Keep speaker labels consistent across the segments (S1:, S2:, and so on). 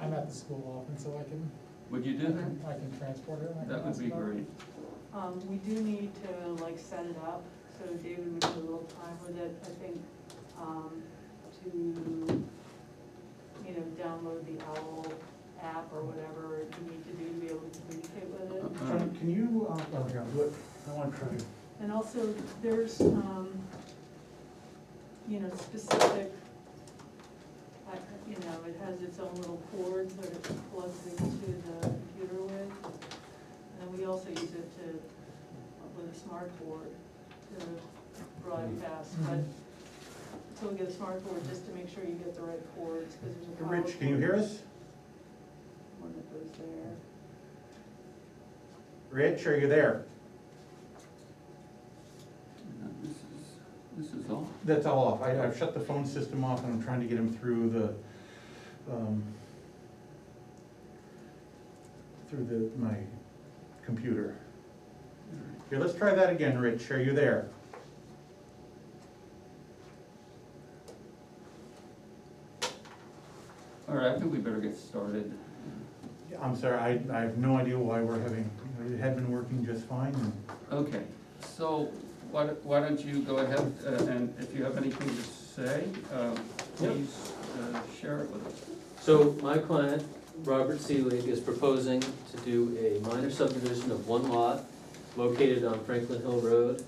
S1: I'm at the school often, so I can,
S2: Would you do that?
S1: I can transport her. and I can
S2: That would
S1: ask
S2: be
S1: about it.
S2: great.
S3: Um, we do need to like set it up, so David would have a little time with it, I think, um, to, you know, download the OWL app or whatever you need to do to be able to communicate with it.
S2: All right.
S4: Can can you, uh, oh, here, do it, I wanna try it.
S3: And also, there's, um, you know, specific, I, you know, it has its own little cord that it plugs into the computer with. And then we also use it to, with a smart board to broadcast,
S4: Mm-hmm.
S3: but until we get a smart board, just to make sure you get the right cords, because there's a.
S4: Hey,
S3: power
S4: Rich, can you hear
S3: cord,
S4: us?
S3: One that goes there.
S4: Rich, are you there?
S2: Now, This is, this is all.
S4: That's all off, I, I've shut the phone system off and I'm trying to get him through the, um, through the, my computer.
S2: All right.
S4: Here, let's try that again, Rich, are you there?
S2: All right, I think we better get started.
S4: I'm sorry, I, I have no idea why we're having, it had been working just fine and.
S2: Okay, so why, don't- why don't you go ahead uh, and if you have anything to say, um,
S5: Yep.
S2: please uh, share it with us.
S5: So my client, Robert Seelig, is proposing to do a minor subdivision of one lot located on Franklin Hill Road.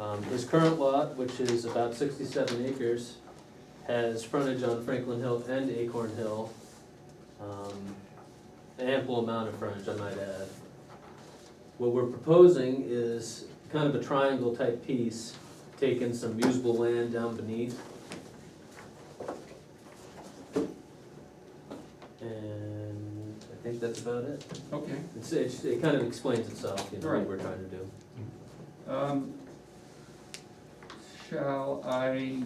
S5: Um, His current lot, which is about sixty-seven acres, has frontage on Franklin Hill and Acorn Hill. Um, An ample amount of frontage, I might add. What we're proposing is kind of a triangle-type piece, taking some usable land down beneath And I think that's about it.
S2: Okay,
S5: It's, it's, it kind of explains itself, you know,
S2: Right.
S5: what we're trying to do.
S2: um, shall I,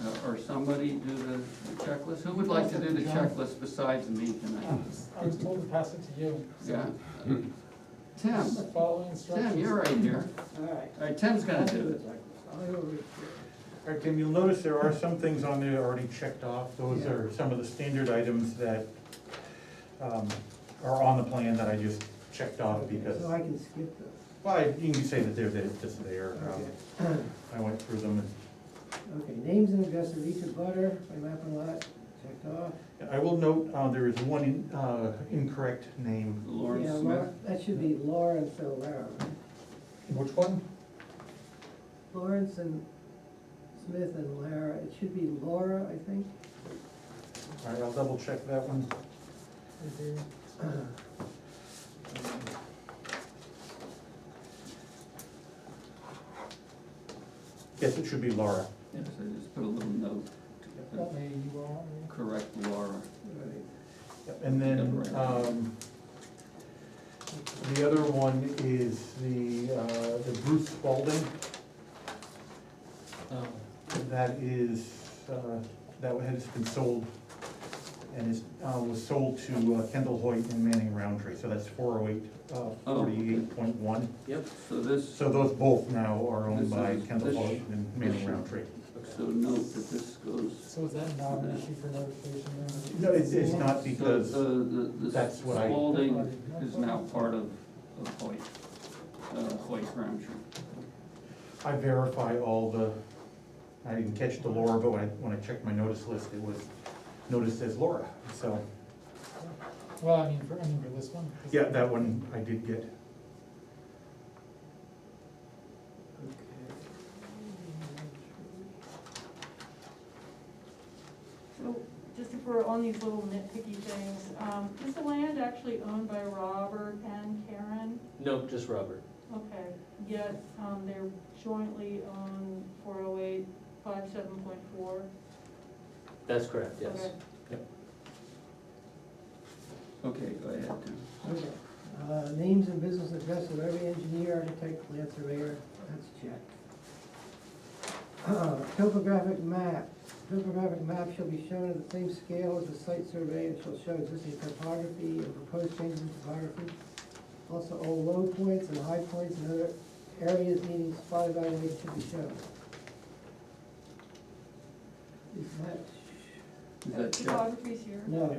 S2: uh, or somebody do the checklist? Who would like to do the checklist besides me tonight?
S1: I was told to pass it to you.
S2: Yeah? Tim,
S1: Following
S2: Tim, you're
S1: instructions.
S2: right here.
S6: All right.
S2: All right, Tim's gonna do it.
S4: All right, Tim, you'll notice there are some things on there already checked off. Those are some of the standard items that um, are on the plan that I just checked off because,
S6: So I can skip this.
S4: well, I- you can say that they're there, just there. Um, I went through them
S6: Okay, names and addresses of each of butter, by map and lot, checked off.
S4: and I will note, uh, there is one in- uh, incorrect name.
S6: Yeah,
S2: Lawrence Smith.
S6: Laura- That should be Lawrence O'Lara, right?
S4: Which one?
S6: Lawrence and Smith and Lara, it should be Laura, I think.
S4: All right, I'll double check that one.
S1: Okay.
S4: Yes, it should be Laura.
S2: Yes, I just put a little note to
S1: That may you are,
S2: to correct Laura.
S6: Right.
S4: Yep, And then, um, the other one is the, uh, the Bruce Spalding, Oh, that is, uh, that has been sold and is, uh, was sold to uh, Kendall Hoyt and Manning Roundtree, so that's four oh eight, uh,
S2: Oh, okay.
S4: forty-eight point one.
S5: Yep,
S2: So this,
S4: So those both now are owned
S2: This
S4: by
S2: is-
S4: Kendall
S2: this-
S4: Hoyt and Manning Roundtree.
S2: so
S5: okay.
S2: note that this goes,
S1: so is that not an issue for notification? then?
S4: No, it's, it's not
S2: so
S4: because,
S2: the, the, the
S4: that's what I-
S2: Spalding is now part of, of Hoyt, uh, Hoyt Roundtree.
S4: I verify all the, I didn't catch the Laura, but when I, when I checked my notice list, it was noticed as Laura, so.
S1: Well, I mean, for, I mean, for this one. 'cause-
S4: Yeah, that one I did get.
S3: So, just if we're on these little nitpicky things, um, is the land actually owned by Robert and Karen?
S5: No, just Robert.
S3: Okay, yet, um, they're jointly on four oh eight, five seven point four?
S5: That's correct, yes.
S2: Okay, go ahead, Tim.
S6: Okay, uh, names and business address of every engineer, architect, land surveyor, that's checked. Uh, Topographic map, topographic map shall be shown at the same scale as the site survey and shall show existing topography and proposed changes in topography. Also, all low points and high points and other areas needing spot evaluation should be shown. Is that,
S2: Is that checked?
S3: Photography's Uh, here.
S6: no,